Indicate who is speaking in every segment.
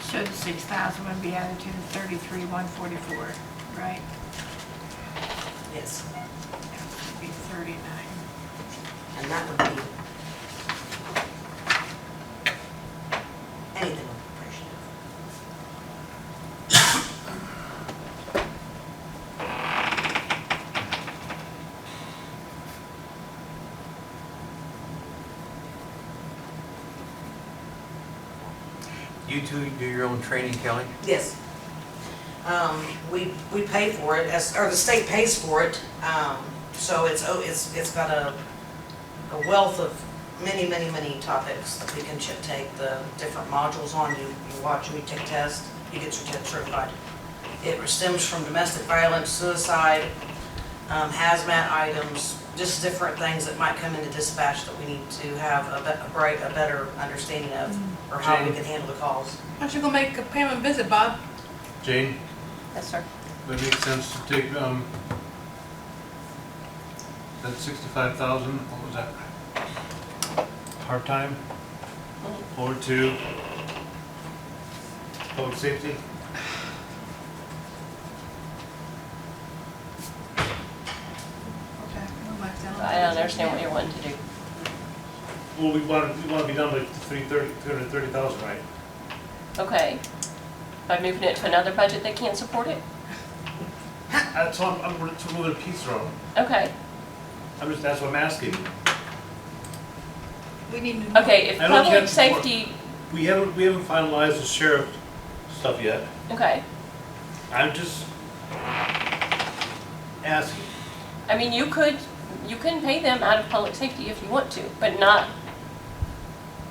Speaker 1: six thousand would be added to the thirty-three, one forty-four, right?
Speaker 2: Yes,
Speaker 1: That would be thirty-nine.
Speaker 2: and that would be anything appreciative.
Speaker 3: You two do your own training, Kelly?
Speaker 2: Yes. Um, we, we pay for it, as, or the state pays for it, um, so it's, oh, it's, it's got a, a wealth of many, many, many topics that we can ch- take the different modules on, you, you watch, you take tests, you get your test certified. It stems from domestic violence, suicide, um, hazmat items, just different things that might come into dispatch that we need to have a, be- a break, a better understanding of, or how we can handle the calls.
Speaker 4: Aren't you gonna make Pam a visit, Bob?
Speaker 5: Jane,
Speaker 6: Yes, sir.
Speaker 5: would it make sense to take, um, that sixty-five thousand, what was that? Part-time, or to public safety?
Speaker 1: Okay, we'll let them-
Speaker 6: I don't understand what you're wanting to do.
Speaker 5: Well, we want, we want to be done by three thirty, three hundred thirty thousand, right?
Speaker 6: Okay. By moving it to another budget that can't support it?
Speaker 5: That's all, I'm, we're just moving a piece around,
Speaker 6: Okay.
Speaker 5: I'm just, that's what I'm asking.
Speaker 1: We need to.
Speaker 6: Okay, if
Speaker 5: I don't care
Speaker 6: public
Speaker 5: if it's more-
Speaker 6: safety,
Speaker 5: We haven't, we haven't finalized the sheriff stuff yet,
Speaker 6: okay.
Speaker 5: I'm just asking.
Speaker 6: I mean, you could, you can pay them out of public safety if you want to, but not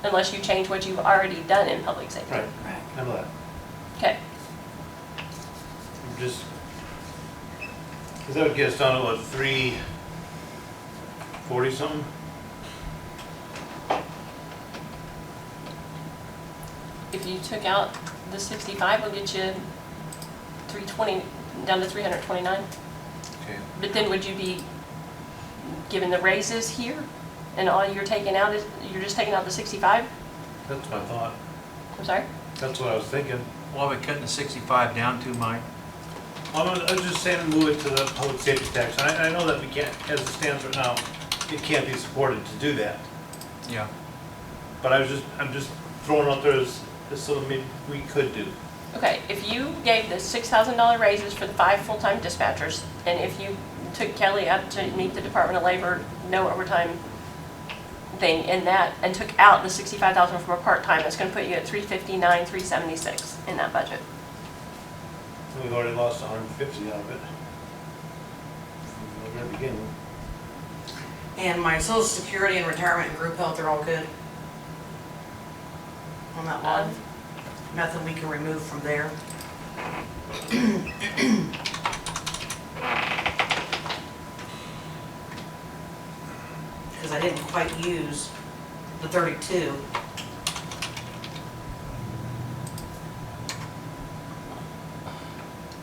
Speaker 6: unless you change what you've already done in public safety.
Speaker 5: Right,
Speaker 1: Right.
Speaker 5: I know that.
Speaker 6: Okay.
Speaker 5: I'm Just, because that would get us down to what, three forty something?
Speaker 6: If you took out the sixty-five, we'll get you three twenty, down to three hundred twenty-nine.
Speaker 5: Okay.
Speaker 6: But then would you be given the raises here and all you're taking out is, you're just taking out the sixty-five?
Speaker 5: That's my thought.
Speaker 6: I'm sorry?
Speaker 5: That's what I was thinking.
Speaker 3: Well, we're cutting the 65 down to, Mike.
Speaker 5: I'm, gonna- I was just saying move it to the public safety tax. And I, I know that we can't, as it stands right now, it can't be supported to do that.
Speaker 3: Yeah.
Speaker 5: But I was just, I'm just throwing out there as, as something maybe we could do.
Speaker 6: Okay, if you gave the six thousand dollar raises for the five full-time dispatchers, and if you took Kelly up to meet the Department of Labor, no overtime thing in that, and took out the sixty-five thousand from a part-time, that's gonna put you at three fifty-nine, three seventy-six in that budget.
Speaker 5: And We've already lost hundred and fifty out of it. From the very beginning.
Speaker 2: And my social security and retirement and group health are all good. On that
Speaker 6: Um,
Speaker 2: one, nothing we can remove from there. Because I didn't quite use the thirty-two.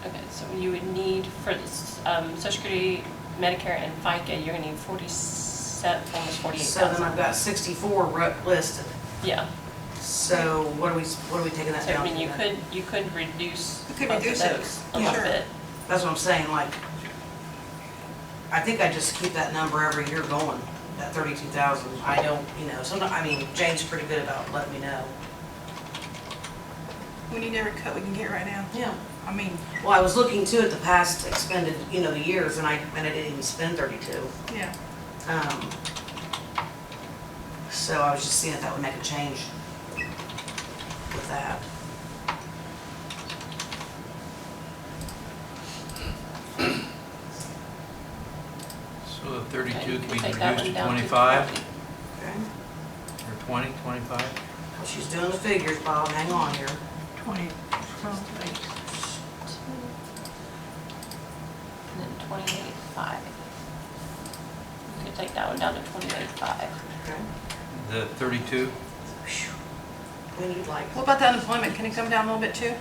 Speaker 6: Okay, so you would need for this, um, social security, Medicare, and FICA, you're gonna need forty-seven, almost forty-eight
Speaker 2: So then
Speaker 6: thousand.
Speaker 2: I've got sixty-four ru- listed.
Speaker 6: Yeah,
Speaker 2: So what are we, what are we taking that
Speaker 6: so
Speaker 2: down
Speaker 6: I
Speaker 2: to?
Speaker 6: mean, you
Speaker 2: then?
Speaker 6: could, you could reduce
Speaker 1: You
Speaker 6: both
Speaker 1: could
Speaker 6: of
Speaker 1: reduce it,
Speaker 6: those a little
Speaker 1: sure.
Speaker 6: bit.
Speaker 2: That's what I'm saying, like, I think I just keep that number every year going, that thirty-two thousand. I don't, you know, sometimes, I mean, Jane's pretty good about letting me know.
Speaker 4: We need every cut we can get right now.
Speaker 2: Yeah.
Speaker 4: I mean,
Speaker 2: Well, I was looking too at the past expended, you know, the years, and I, and I didn't even spend thirty-two.
Speaker 4: yeah.
Speaker 2: Um, So I was just seeing if that would make a change with that.
Speaker 3: So the 32
Speaker 6: Okay, you
Speaker 3: can be
Speaker 6: take that
Speaker 3: reduced to
Speaker 6: one down
Speaker 3: 25,
Speaker 6: 20.
Speaker 2: Okay.
Speaker 3: or 20, 25?
Speaker 2: Well, she's doing the figures, Bob, hang on here.
Speaker 1: Twenty, probably.
Speaker 6: And then twenty-eight five. You could take that one down to twenty-eight five.
Speaker 2: Okay.
Speaker 3: The 32?
Speaker 2: When you'd like.
Speaker 4: What about the unemployment? Can it come down a little bit too?